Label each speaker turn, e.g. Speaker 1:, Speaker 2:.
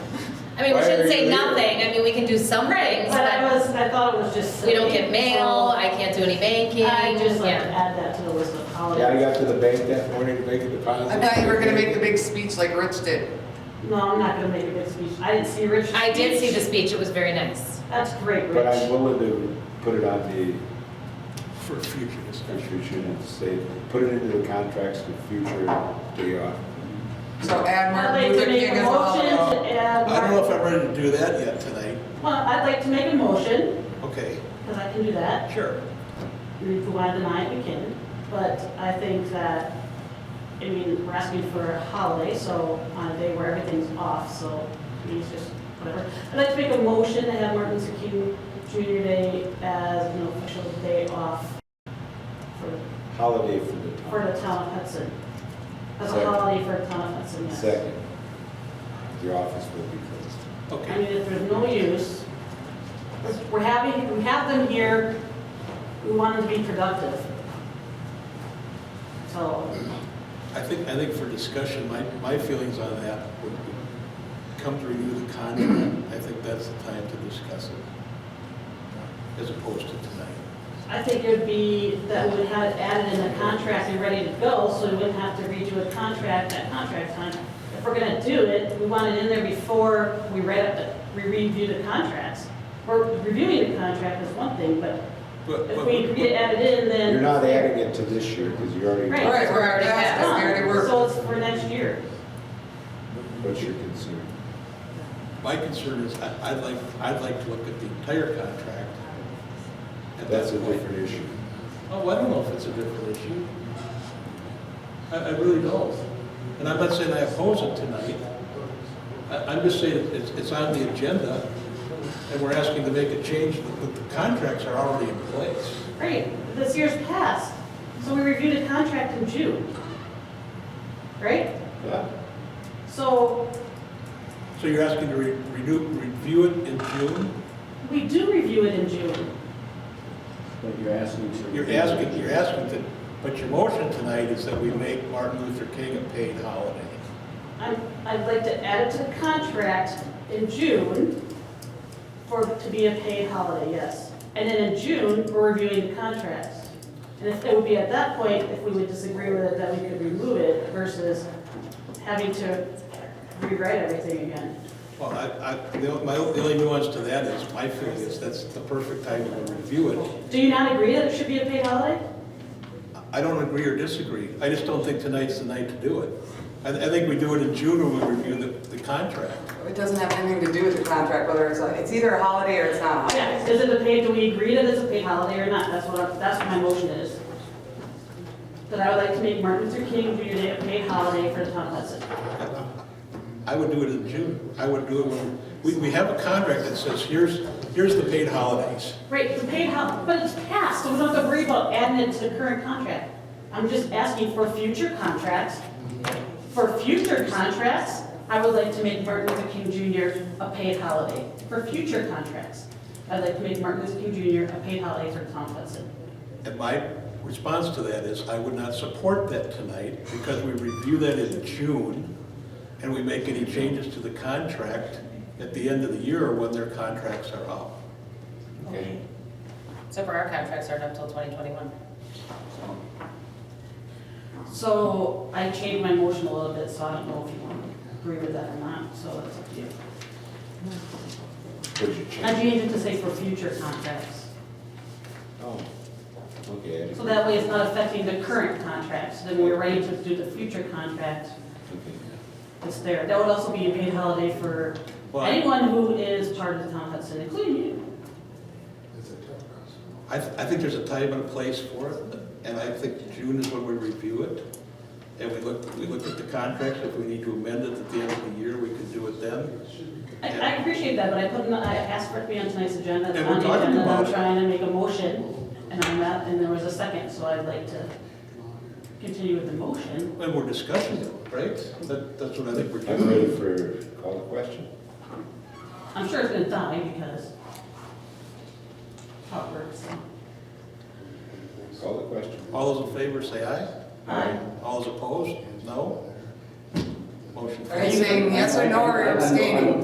Speaker 1: I mean, we
Speaker 2: Why
Speaker 1: shouldn't
Speaker 2: are
Speaker 1: say
Speaker 2: you leaving?
Speaker 1: nothing, I mean, we can do some rings,
Speaker 3: But I
Speaker 1: but
Speaker 3: was, I thought it was just.
Speaker 1: we don't get
Speaker 3: silly,
Speaker 1: mail,
Speaker 3: so
Speaker 1: I can't do any banking,
Speaker 3: I just like to
Speaker 1: yeah.
Speaker 3: add that to the list of
Speaker 2: Yeah, I
Speaker 3: holidays.
Speaker 2: got to the bank that morning to make a deposit.
Speaker 4: I thought you were gonna make the big speech like Rich did.
Speaker 3: No, I'm not gonna make a big speech. I didn't see Rich's
Speaker 1: I did see the
Speaker 3: speech.
Speaker 1: speech, it was very nice.
Speaker 3: That's great,
Speaker 2: But I'm
Speaker 3: Rich.
Speaker 2: willing to put it on the
Speaker 5: for future discussion.
Speaker 2: contribution and say, put it into the contracts for future day off.
Speaker 4: So
Speaker 3: I'd
Speaker 4: add Martin
Speaker 3: like to
Speaker 4: Luther
Speaker 3: make
Speaker 4: King
Speaker 3: a
Speaker 4: as a
Speaker 3: motion
Speaker 4: holiday.
Speaker 3: to add.
Speaker 5: I don't know if I'm ready to do that yet tonight.
Speaker 3: Well, I'd like to make a motion,
Speaker 5: Okay,
Speaker 3: because I can do that.
Speaker 5: sure.
Speaker 3: And If we want to deny it, we can. But I think that, I mean, we're asking for a holiday, so on a day where everything's off, so I mean, it's just whatever. I'd like to make a motion to have Martin Luther King Junior Day as an official day off for,
Speaker 2: Holiday for the
Speaker 3: for
Speaker 2: town.
Speaker 3: the town of Hudson. As a
Speaker 2: Second.
Speaker 3: holiday for the town of Hudson, yes.
Speaker 2: Second, your office will be closed.
Speaker 3: I
Speaker 5: Okay.
Speaker 3: mean, if there's no use, we're having, we have them here, we want them to be productive. So,
Speaker 5: I think, I think for discussion, my, my feelings on that would be, come to review the contract, I think that's the time to discuss it, as opposed to tonight.
Speaker 3: I think it would be, that we would have it added in the contract and ready to go, so we wouldn't have to redo a contract at contract time. If we're gonna do it, we want it in there before we read, up the- we review the contracts. Or reviewing the contract is one thing, but
Speaker 5: But,
Speaker 3: if
Speaker 5: but,
Speaker 3: we agree to add it in, then.
Speaker 2: You're not adding it to this year because you already.
Speaker 3: Right.
Speaker 4: Right, we're already
Speaker 3: It's
Speaker 4: past this, we already
Speaker 3: done,
Speaker 4: were.
Speaker 3: so it's for next year.
Speaker 2: What's your concern?
Speaker 5: my concern is, I, I'd like, I'd like to look at the entire contract. at that
Speaker 2: That's a
Speaker 5: point.
Speaker 2: different issue.
Speaker 5: Oh, I don't know if it's a different issue. I, I really don't. And I'm not saying I oppose it tonight. I, I'm just saying it's, it's on the agenda, and we're asking to make a change, but the contracts are already in place.
Speaker 3: Great, this year's passed, so we reviewed a contract in June. Right?
Speaker 2: Yeah.
Speaker 3: So
Speaker 5: So you're asking to re- renew, review it in June?
Speaker 3: we do review it in June.
Speaker 6: But you're asking to.
Speaker 5: You're asking, you're asking to, but your motion tonight is that we make Martin Luther King a paid holiday.
Speaker 3: I'm, I'd like to add it to the contract in June for, to be a paid holiday, yes. And then in June, we're reviewing the contracts. And if- it would be at that point, if we would disagree with it, that we could remove it versus having to rewrite everything again.
Speaker 5: Well, I, I, the o- my, o- the only nuance to that is, my feeling is that's the perfect time to review it.
Speaker 3: Do you not agree that it should be a paid holiday?
Speaker 5: I don't agree or disagree. I just don't think tonight's the night to do it. I, I think we do it in June when we review the, the contract.
Speaker 4: It doesn't have anything to do with the contract, whether it's, a- it's either a holiday or it's not a holiday.
Speaker 3: Yeah, is it a paid, do we agree that it's a paid holiday or not? That's what, I- that's what my motion is. That I would like to make Martin Luther King Junior Day a paid holiday for the town of Hudson.
Speaker 5: I would do it in June. I would do it when, we, we have a contract that says, here's, here's the paid holidays.
Speaker 3: Right, it's a paid holiday, but it's passed, so we don't have to worry about adding it to the current contract. I'm just asking for future contracts. For future contracts, I would like to make Martin Luther King Junior a paid holiday. For future contracts, I'd like to make Martin Luther King Junior a paid holiday for the town of Hudson.
Speaker 5: And my response to that is, I would not support that tonight because we review that in June and we make any changes to the contract at the end of the year when their contracts are up.
Speaker 2: Okay.
Speaker 1: So for our contracts aren't up till 2021.
Speaker 3: So I changed my motion a little bit, so I don't know if you want to agree with that or not, so it's up to you.
Speaker 2: Would you
Speaker 3: I
Speaker 2: change?
Speaker 3: changed it to say for future contracts,
Speaker 2: Oh, okay. I didn't-
Speaker 3: so that way it's not affecting the current contracts, then when we're ready to do the future contract,
Speaker 2: Okay.
Speaker 3: it's there. That would also be a paid holiday for
Speaker 5: Well, I-
Speaker 3: anyone who is part of the town of Hudson, including you.
Speaker 5: I, th- I think there's a time and a place for it, and I think June is when we review it. And we look, we look at the contracts, if we need to amend it at the end of the year, we could do it then.
Speaker 3: I, I appreciate that, but I put, in- I asked for it to be on tonight's agenda. It's
Speaker 5: And we're
Speaker 3: on the
Speaker 5: talking
Speaker 3: agenda,
Speaker 5: about
Speaker 3: I'm
Speaker 5: it.
Speaker 3: trying to make a motion, and I'm not, and there was a second, so I'd like to continue with the motion.
Speaker 5: And we're discussing it, right? That, that's what I think we're
Speaker 2: I'm ready
Speaker 5: doing.
Speaker 2: for, call the question.
Speaker 3: I'm sure it's gonna die because how it works.
Speaker 2: Call the question.
Speaker 5: All those in favor say aye.
Speaker 3: Aye.
Speaker 5: All those opposed? No? Motion
Speaker 4: Are you
Speaker 5: carries.
Speaker 4: saying yes or no
Speaker 6: I-
Speaker 4: or
Speaker 6: I- I- I-
Speaker 4: abstaining?